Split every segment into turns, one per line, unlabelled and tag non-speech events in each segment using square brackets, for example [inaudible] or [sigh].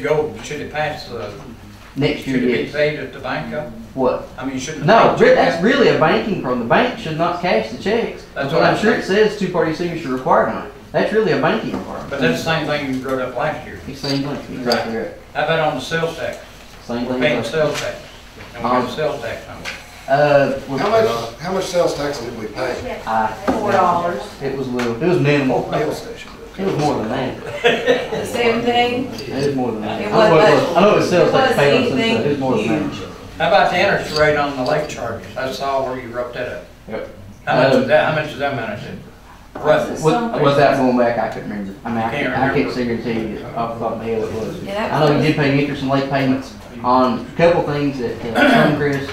Go, should it pass, uh,
Next year,
should it be
yes.
paid at the bank? uh?
What?
I mean, shouldn't. the
No,
bank
re-
check
that's
that?
really a banking problem. The bank should not cash the checks.
That's
But
what
I'm
I'm
sure it says two-party signature required on it. That's really a banking requirement.
But that's the same thing you wrote up last year.
It's Same thing, exactly right.
How about on the sales tax?
Same
We're
thing.
paying
as-
sales tax. And
Um,
we have a sales tax number.
Uh, we-
How much, how much sales tax did we pay?
I-
Four dollars.
It was little, it was minimal.
Fuel station.
It was more than that.
The same thing,
It was more than that.
It
I know it
wasn't-
was- I know it was sales
it
tax
wasn't
paid on some stuff. It was
anything
more than
huge.
that.
How about the interest rate on the lake charges? I saw where you wrote that up.
Yep.
How much
Um,
is that, how much is that amount to? Roughly.
Was, was that going back? I couldn't remember. I mean, I
Can't
can't, I
remember.
can't guarantee you off the top of my head what it was.
Yeah, that
I know we
was-
did pay interest and late payments on a couple things
[clears throat]
at uh, Suncrest.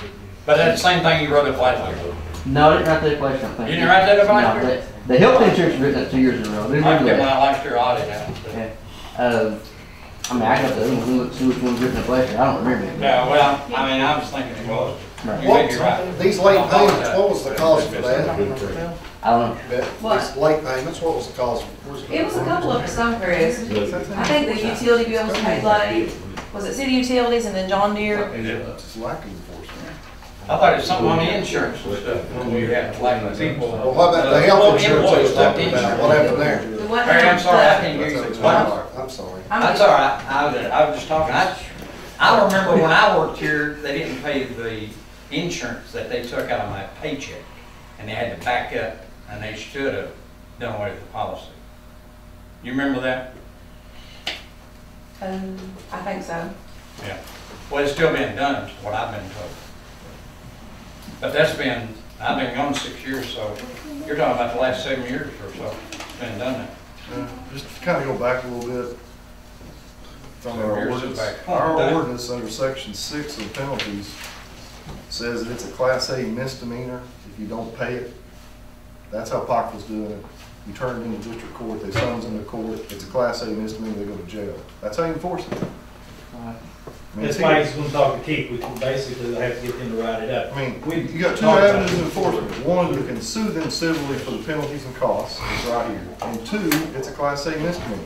But that's the same thing you wrote up last year.
No, I didn't write that question, I think.
You didn't write that up last
No,
year?
that- The health insurance written up two years in a row. I do
I
remember
did my
that.
last year audit out. so.
Yeah. Um, I mean, I got the other one, see which one's written up last year. I don't remember it.
Yeah, well, I mean, I was thinking it was.
Right.
You may be right.
What, these late payments, what was the cause for that?
I don't know.
But These late payments, what was the cause?
It was a couple of Suncrest. I think the utility bills paid like, was it city utilities and then John Deere?
It's lack enforcement.
I thought it was something on the insurance and stuff, when we had like people. uh,
Well, what about the
Well,
health insurance I
employees,
was talking
health
about? What happened there?
The one-
Barry, I'm sorry, I
the-
didn't hear you explain.
I'm sorry.
I'm-
That's all right, I was, I was just talking, I, I remember when I worked here, they didn't pay the insurance that they took out of my paycheck, and they had to back up, and they should have done away with the policy. You remember that?
Um, I think so.
Yeah. Well, it's still being done, is what I've been told. But that's been, I've been gone six years, so you're talking about the last seven years or so, it's been done that.
Uh, Just to kind of go back a little bit. it's on
Seven
our
years
ordinance,
back.
our ordinance under section six of penalties says that it's a class A misdemeanor if you don't pay it. That's how Pac was doing it. You turn it into district court, they summons them to court, it's a class A misdemeanor, they go to jail. That's how you enforce it. I mean,
That's
it's
why
here.
he's gonna talk to Keith, we can basically have to get them to write it up.
I mean,
We-
you got two
Talk about
avenues
it.
of enforcement. One, you can sue them civilly for the penalties and costs, it's right here. And two, it's a class A misdemeanor.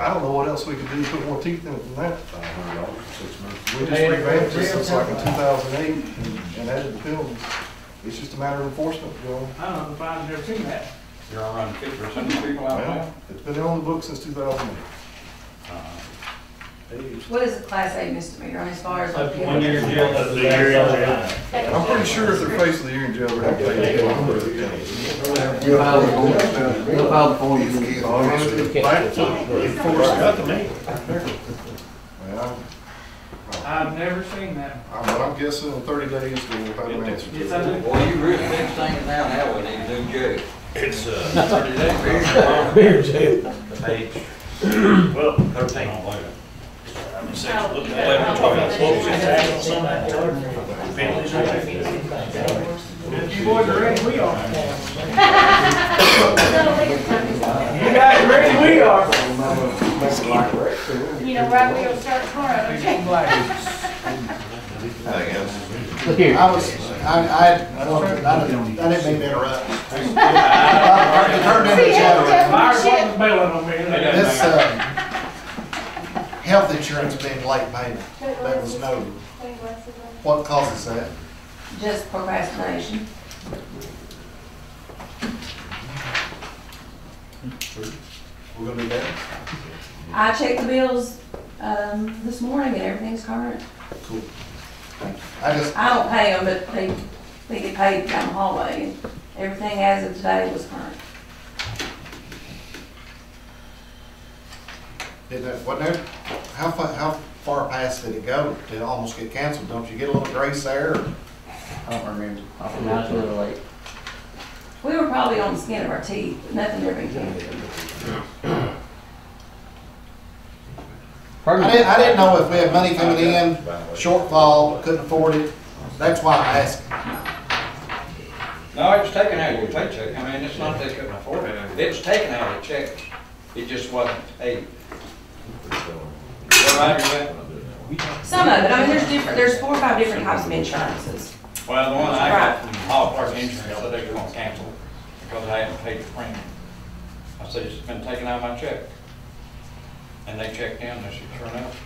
I don't know what else we could do to put more teeth in it than that. We just revamped this since like in two thousand eight and added the penalties. It's just a matter of enforcement, Joe.
I don't know if I've never seen that.
You're around fifty percent of the people out there.
Well, It's been on the books since two thousand eight.
What is a class A misdemeanor, I mean, as far as?
Up to one year in jail, up to the
I'm pretty sure if they're faced with a year in jail, they're gonna pay it.
They'll file the forms, they'll file the forms. and-
Back to enforcement. Well,
I've never seen that.
I'm, I'm guessing in thirty days we'll have an answer.
Yes, I do.
Well, you really fix things now, now we need to do good.
It's, uh,
Thirty days.
beer jail.
Page
Well,
thirteen.
I mean, section, look at eleven, twelve, what was it, tax on that? Penalties, right?
You boys are ready, we are. You guys ready, we are.
You know, right where you'll start tomorrow, okay?
Look here.
I was, I, I, I don't, I didn't, I didn't mean to
[laughs]
interrupt. It turned into chatter.
Myers wasn't bailing on me.
uh,
This, um, health insurance being late payment, that was noted. What causes that?
Just procrastination.
We're gonna do that?
I checked the bills, um, this morning and everything's current.
I just,
I don't pay them, but they, they get paid down the hallway. and Everything as of today was current.
Did that, what there, how far, how far past did it go to almost get canceled? Don't you get a little grace there? or- I don't remember.
Oh, Now it's a little late.
We were probably on the skin of our teeth, but nothing ever came.
Pardon
I
me?
didn't, I didn't know if we had money coming in, shortfall, couldn't afford it. That's why I asked.
No, it was taken out of your paycheck. I mean, it's not they couldn't afford it. It was taken out of the check. It just wasn't paid. You all right with that?
Some of it, I mean, there's different, there's four or five different types of insurances.
Well, the one I got from Hall Park Insurance, so they were gonna cancel it because I hadn't paid the premium. I said, it's been taken out of my check. And they checked in, they said, sure enough,